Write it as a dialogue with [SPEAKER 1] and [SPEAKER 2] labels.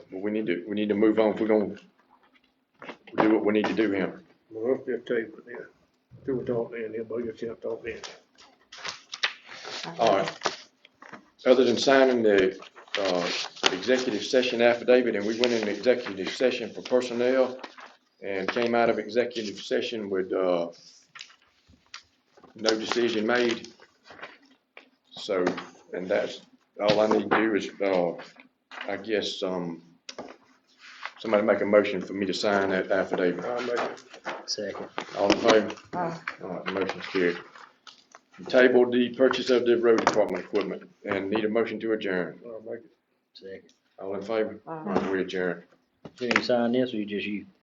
[SPEAKER 1] we need to, we need to move on if we're gonna do what we need to do here.
[SPEAKER 2] Well, I'll just tell you, but yeah, do it all then, yeah, but you can't talk then.
[SPEAKER 1] All right. Other than signing the, uh, executive session affidavit, and we went into executive session for personnel and came out of executive session with, uh, no decision made. So, and that's, all I need to do is, uh, I guess, um, somebody make a motion for me to sign that affidavit.
[SPEAKER 2] I'll make it.
[SPEAKER 3] Second.
[SPEAKER 1] All in favor?
[SPEAKER 4] Aye.
[SPEAKER 1] All right, motion's carried. Table the purchase of the road department equipment and need a motion to adjourn.
[SPEAKER 2] I'll make it.
[SPEAKER 3] Second.
[SPEAKER 1] All in favor?
[SPEAKER 4] Aye.
[SPEAKER 1] 嗯 All right, we adjourn.
[SPEAKER 3] You didn't sign this, or you just you?